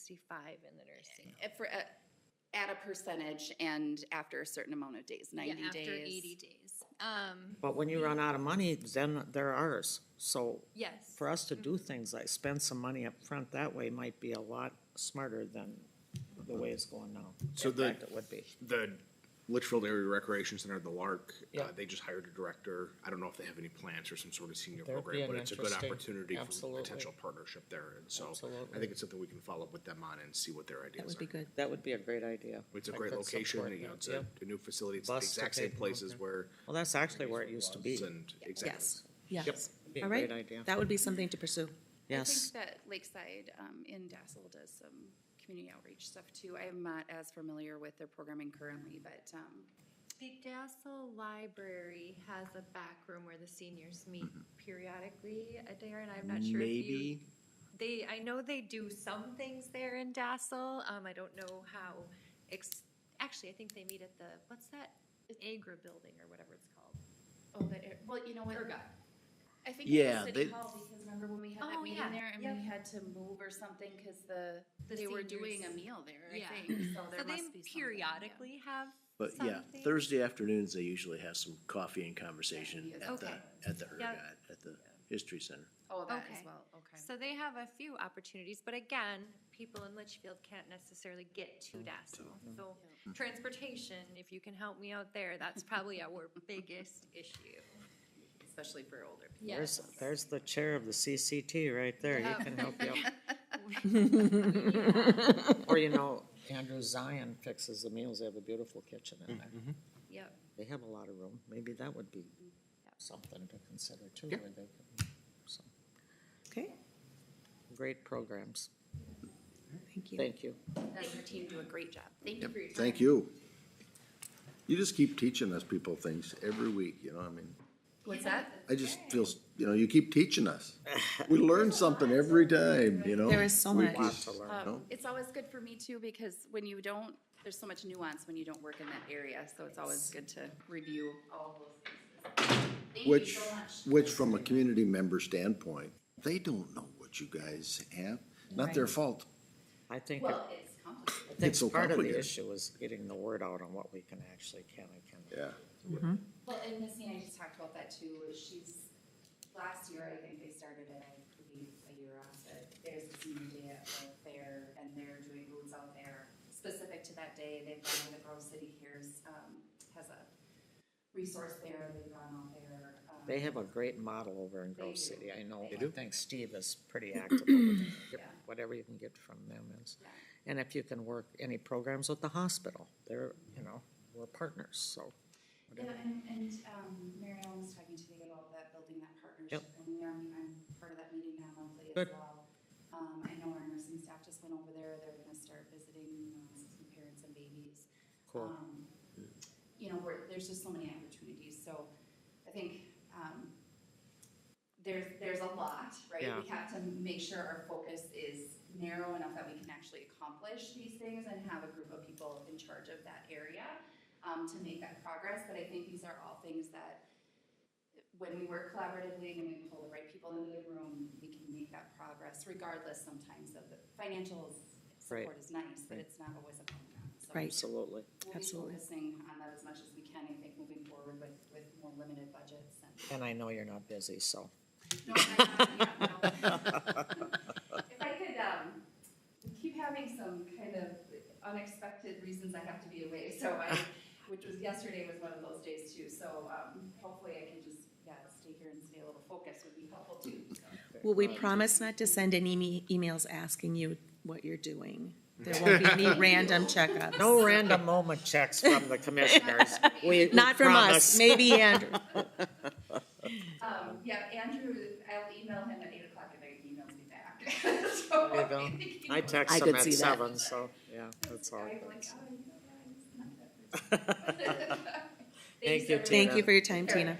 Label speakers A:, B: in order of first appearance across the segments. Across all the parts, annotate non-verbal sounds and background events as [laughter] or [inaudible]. A: sixty-five in the nursing.
B: If for, at, at a percentage and after a certain amount of days,
C: Yeah,
B: ninety days.
C: After eighty days. Um,
D: But when you run out of money, then they're ours. So
C: yes.
D: for us to do things like spend some money up front that way might be a lot smarter than the way it's going now.
E: So
D: In
E: the-
D: fact, It would be.
E: The Litchfield Area Recreation Center, the LARC, uh,
D: Yeah.
E: they just hired a director. I don't know if they have any plans or some sort of senior
D: That'd be
E: program, but
D: an
E: it's a good
D: interesting-
E: opportunity for
D: absolutely.
E: potential partnership there. And so I
D: Absolutely.
E: think it's something we can follow up with them on and see what their ideas are.
F: good.
D: That would be a great idea.
E: It's a
D: I
E: great
D: could
E: location,
D: support
E: you know,
D: that,
E: it's a,
D: yeah.
E: a new facility. It's the
D: Bus to
E: exact same
D: take them
E: places
D: over.
E: where.
D: Well, that's actually where it used to be.
E: And exactly.
F: Yes, yes.
D: Be a
F: All right,
D: great idea.
F: that would be something to pursue.
D: Yes.
B: I think that Lakeside um, in Dassel does some community outreach stuff too. I am not as familiar with their programming currently, but um,
C: The Dassel Library has a back room where the seniors meet
G: Mm-hmm.
C: periodically, uh, Darren, I'm not sure if you.
E: Maybe,
C: They, I know they do some things there in Dassel, um, I don't know how, ex, actually, I think they meet at the, what's that? Agra Building or whatever it's called.
B: oh, but it, well, you know what?
C: Ergot.
B: I think it
E: Yeah,
B: was City
E: they-
B: Hall because remember when we had
C: Oh,
B: that meeting
C: yeah,
B: there and
C: yep.
B: we had to move or something because the
C: The
B: they were doing a
C: seniors.
B: meal there.
C: Yeah.
B: I think so. There
C: So
B: must be
C: they
B: something, yeah.
C: periodically have
G: But
C: something.
G: yeah, Thursday afternoons, they usually have some coffee and conversation
B: Yeah,
G: at the,
C: okay.
G: at the
C: Yeah.
G: Ergot, at the History Center.
B: Oh, that
C: Okay.
B: as well. Okay.
C: So they have a few opportunities, but again, people in Litchfield can't necessarily get to Dassel. So transportation, if you can help me out there, that's probably our
B: [laughs]
C: biggest issue.
B: Especially for older people.
D: There's, there's the chair of the CCT right there. He can help
H: [laughs]
D: you. out. Or, you know, Andrew Zion fixes the meals. They have a beautiful kitchen in there.
H: Mm-hmm.
C: Yep.
D: They have a lot of room. Maybe that would be something to consider too, where they could, so,
F: Okay,
D: great programs.
F: thank you.
D: Thank you.
B: And your team do a great job. Thank you for your time.
H: Thank you. You just keep teaching us people things every week, you know, I mean,
B: What's that?
H: I just feel, s- you know, you keep teaching us. We learn something every time, you know?
F: There is so
H: We
F: much.
H: just,
D: to learn.
H: you know?
B: Um, It's always good for me too, because when you don't, there's so much nuance when you don't work in that area, so it's always good to review all of those pieces. Thank you
H: Which,
B: so much.
H: which from a community member standpoint, they don't know what you guys have. Not their fault.
D: I think, it-
B: Well, it's complicated.
D: I think
H: so
D: part of the
H: complicated.
D: issue is getting the word out on what we can actually can and cannot.
H: Yeah.
B: Well, and Missy and I just talked about that too, is she's, last year, I think they started it, I believe, a year off, but there's a senior day at the fair, and they're doing booths out there specific to that day. They've gone to the Grove City Cares, um, has a resource there, they've gone out there. um,
D: They have a great model over in Grove
B: do.
D: City. I know,
B: They
D: I think Steve is
F: [clears throat]
D: pretty active over there. Yep,
B: Yeah.
D: Whatever you can get from them is.
B: Yeah.
D: And if you can work any programs with the hospital, they're, you know, we're partners, so.
B: Yeah, and, and, um, Mary Ellen was talking to me about that, building that partnership, and we are, I'm part of that meeting now monthly as
D: Good.
B: well. Um, I know our nursing staff just went over there, they're gonna start visiting, um, some parents and babies.
D: Cool.
B: Um, You know, we're, there's just so many opportunities, so I think, um, there's, there's a lot, right?
D: Yeah.
B: We have to make sure our focus is narrow enough that we can actually accomplish these things and have a group of people in charge of that area um, to make that progress. But I think these are all things that when we work collaboratively and we pull the right people into the room, we can make that progress regardless sometimes of the financial support
D: Right.
B: is nice, but
D: Right.
B: it's not always a program. So
F: Right.
D: Absolutely.
B: We'll be
F: Absolutely.
B: focusing on that as much as we can, I think, moving forward with, with more limited budgets
D: [laughs]
B: and.
D: And I know you're not busy, so.
B: No, I'm not, yeah, no. If I could, um, we keep having some kind of unexpected reasons I have to be away, so I, which was, yesterday was one of those days too, so, um, hopefully I can just, yeah, stay here and stay a little focused would be helpful too, so.
F: Well, we promise not to send any me- emails asking you what you're doing. There won't
D: [laughs]
F: be any random checkups.
D: No random moment checks from the
F: [laughs]
D: commissioners. We we
F: Not from us,
D: promise.
F: maybe
D: [laughs]
F: Andrew.
B: Um, yeah, Andrew, I'll email him at eight o'clock and he emails me back. [laughs] So
D: There you go.
B: I think he
D: I
B: knows.
D: text
F: I
D: them
F: could
D: at
F: see that.
D: seven, so, yeah, that's all.
B: I'm like,
D: good.
B: "Oh, you know, yeah, he's not
D: [laughs]
B: that person."
D: Thank you,
B: everyone.
D: Tina.
F: Thank you for your time, Tina.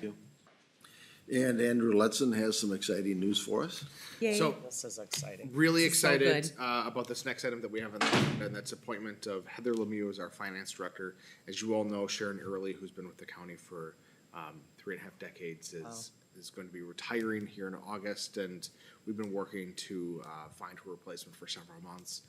H: And Andrew Letson has some exciting news for us.
F: Yay.
E: So
D: This is exciting.
E: really excited
F: good.
E: uh, about this next item that we have on the agenda, and that's appointment of Heather Lemieux as our finance director. As you all know, Sharon Early, who's been with the county for um, three and a half decades, is is going to be retiring here in August, and we've been working to uh, find her replacement for several months.